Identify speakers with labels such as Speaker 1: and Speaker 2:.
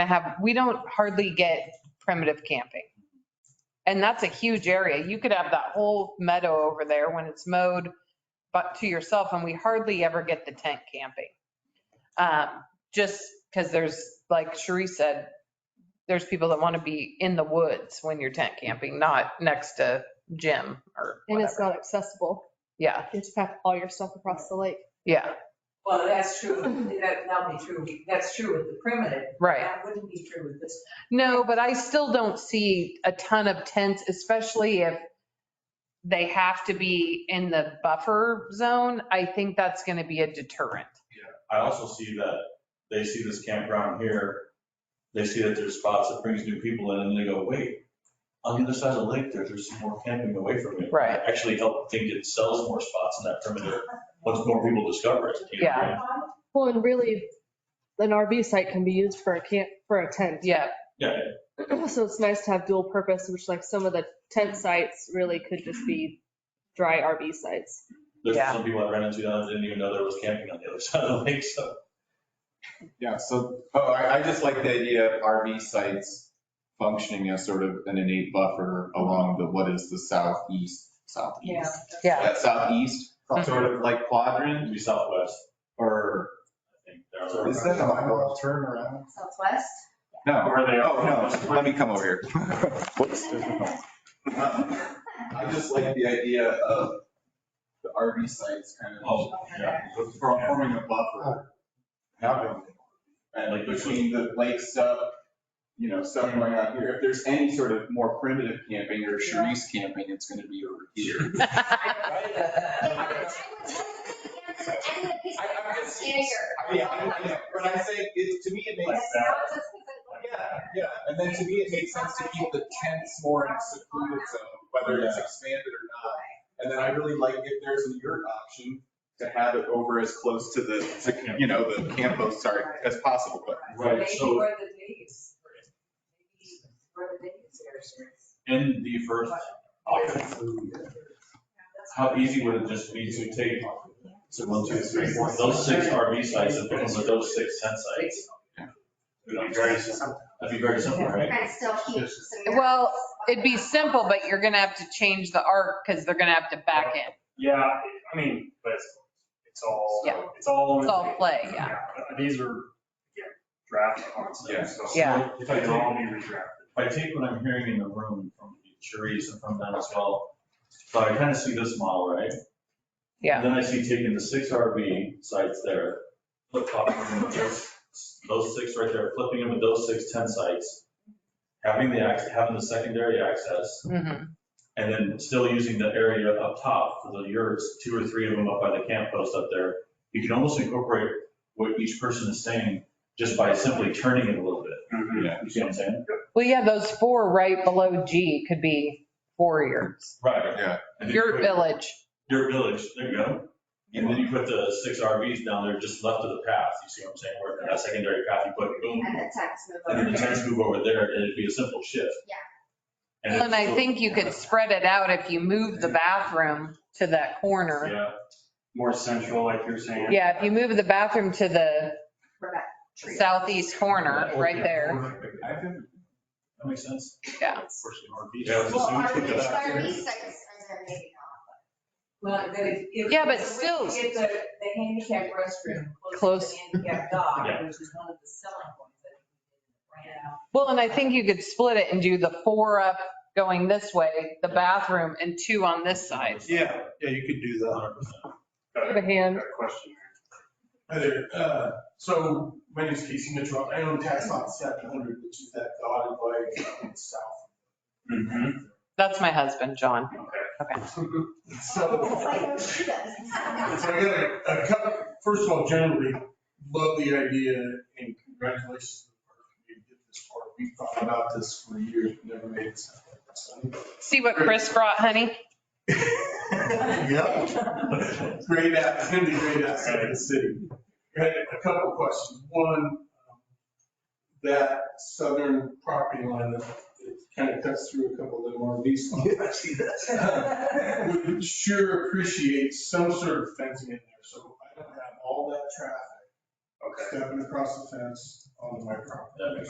Speaker 1: to have, we don't hardly get primitive camping. And that's a huge area. You could have that whole meadow over there when it's mowed, but to yourself, and we hardly ever get the tent camping. Um, Just because there's, like Cherie said, there's people that want to be in the woods when you're tent camping, not next to gym or
Speaker 2: And it's
Speaker 1: whatever.
Speaker 2: not accessible.
Speaker 1: Yeah,
Speaker 2: You just pack all your stuff across the lake.
Speaker 1: yeah,
Speaker 3: Well, that's true. That, that'll be true. That's true with the primitive.
Speaker 1: right.
Speaker 3: That wouldn't be true with this.
Speaker 1: No, but I still don't see a ton of tents, especially if they have to be in the buffer zone. I think that's going to be a deterrent.
Speaker 4: I also see that they see this campground here, they see that there's spots that brings new people in, and they go, wait, on the other side of the lake, there, there's some more camping away from me.
Speaker 1: Right.
Speaker 4: I Actually help think it sells more spots in that perimeter, once more people discover it. you know?
Speaker 1: Yeah.
Speaker 2: Well, and really, an RV site can be used for a camp, for a tent.
Speaker 1: Yeah,
Speaker 4: Yeah,
Speaker 2: So it's nice to have dual purpose, which like some of the tent sites really could just be dry RV sites.
Speaker 4: there's
Speaker 1: Yeah.
Speaker 4: some people I ran into that didn't even know there was camping on the other side of the lake, so.
Speaker 5: Yeah, so, oh, I, I just like the idea of RV sites functioning as sort of an innate buffer along the, what is the southeast,
Speaker 3: Yeah.
Speaker 5: southeast?
Speaker 1: yeah, Mm-hmm.
Speaker 5: That southeast, sort of like quadrant,
Speaker 4: It'd be southwest,
Speaker 5: or
Speaker 4: I think. there are-
Speaker 5: is that a mile turnaround?
Speaker 3: Southwest?
Speaker 5: No,
Speaker 4: Where they
Speaker 5: oh,
Speaker 4: are.
Speaker 5: no, let me come over here. Uh, I just like the idea of the RV sites kind
Speaker 4: Oh,
Speaker 5: of
Speaker 4: yeah.
Speaker 5: forming a buffer. Having. And like between the lake stuff, you know, stuff going on here, if there's any sort of more primitive camping or Sharice camping, it's gonna be over here.
Speaker 6: And I would totally cancel any of the pieces
Speaker 5: I- I'm
Speaker 6: around
Speaker 5: just-
Speaker 6: here.
Speaker 5: Yeah, I I know, but I say, it, to me, it
Speaker 6: It's
Speaker 5: makes,
Speaker 6: not just because
Speaker 5: yeah, yeah, and then to me, it makes sense to keep the tents more in a secluded zone, whether it's expanded or not. And then I really like if there's a yurt option, to have it over as close to the, to, you know, the campo, sorry, as possible, but
Speaker 4: Right,
Speaker 3: Maybe
Speaker 4: so-
Speaker 3: where the days. maybe Where the days are.
Speaker 4: In the first
Speaker 5: Oh,
Speaker 4: option, how easy would it just be to take, so one, two, three, four, those six RV sites and put them with those six tent sites? It'd be very simple, that'd be very simple,
Speaker 6: we're
Speaker 4: right?
Speaker 6: trying to still keep some.
Speaker 1: Well, it'd be simple, but you're going to have to change the arc because they're going to have to back in.
Speaker 7: Yeah, I mean, but it's, it's all,
Speaker 1: Yeah.
Speaker 7: it's all.
Speaker 1: It's all play, yeah.
Speaker 7: but These are, yeah, draft concepts, so.
Speaker 1: Yeah.
Speaker 4: If I
Speaker 7: They'll all be
Speaker 4: take,
Speaker 7: redrafted.
Speaker 4: if I take what I'm hearing in the room from Sharice and from them as well, so I kind of see this model, right?
Speaker 1: Yeah.
Speaker 4: And Then I see taking the six RV sites there, flip flopping them with those, those six right there, flipping them with those six tent sites, having the, ac- having the secondary access,
Speaker 1: Mhm.
Speaker 4: And then still using the area up top for the yurts, two or three of them up by the camp post up there. You can almost incorporate what each person is saying just by simply turning it a little bit.
Speaker 5: Mm-hmm.
Speaker 4: You see what I'm saying?
Speaker 1: Well, yeah, those four right below G could be warriors.
Speaker 4: Right.
Speaker 5: Yeah.
Speaker 4: And then you
Speaker 1: Your
Speaker 4: put-
Speaker 1: village.
Speaker 4: Yurt village, there you go. And then you put the six RVs down there just left of the path. You see what I'm saying? Where that secondary path, you put boom,
Speaker 6: And the text move
Speaker 4: and then the
Speaker 6: over.
Speaker 4: tents move over there and it'd be a simple shift.
Speaker 6: Yeah.
Speaker 4: it's
Speaker 1: And I
Speaker 4: still-
Speaker 1: think you could spread it out if you move the bathroom to that corner.
Speaker 4: Yeah,
Speaker 7: More central, like you're saying.
Speaker 1: Yeah, if you move the bathroom to the
Speaker 6: For that tree.
Speaker 1: southeast corner, right there.
Speaker 5: I think
Speaker 4: that makes sense.
Speaker 1: Yeah.
Speaker 4: Yeah,
Speaker 6: Well,
Speaker 4: so we
Speaker 6: our,
Speaker 4: took that out.
Speaker 6: our sites are there maybe
Speaker 3: Well, but if- if-
Speaker 1: Yeah, but
Speaker 3: if we
Speaker 1: still-
Speaker 3: Get the, the handicap restroom.
Speaker 1: Close.
Speaker 3: to the Handicap dock,
Speaker 4: Yeah.
Speaker 3: which is one of the selling points that we did.
Speaker 1: Well, and I think you could split it and do the four up going this way, the bathroom, and two on this side.
Speaker 8: Yeah, yeah, you could do that.
Speaker 4: 100%.
Speaker 7: Got
Speaker 2: Put
Speaker 7: a
Speaker 2: a hand.
Speaker 7: got a question.
Speaker 8: Hi there, uh, so my name is Casey Mitchell, I own tax lot seven hundred, which is that dotted line south.
Speaker 7: Mhm.
Speaker 1: That's my husband, John.
Speaker 8: So,
Speaker 6: not. She does.
Speaker 8: so I got a, a couple, first of all, generally, love the idea and congratulations. to the park committee to get this far. We've thought about this for years, but never made it sound like this.
Speaker 1: See what Chris brought, honey?
Speaker 6: oh,
Speaker 8: Yep. Great app, it's gonna be great outside of the city. I had a couple questions. One, um, that southern property line that kind of cuts through a couple of them RVs. Would sure appreciate some sort of fencing in there, so I don't have all that traffic
Speaker 7: Okay.
Speaker 8: stepping across the fence onto my property.
Speaker 4: That makes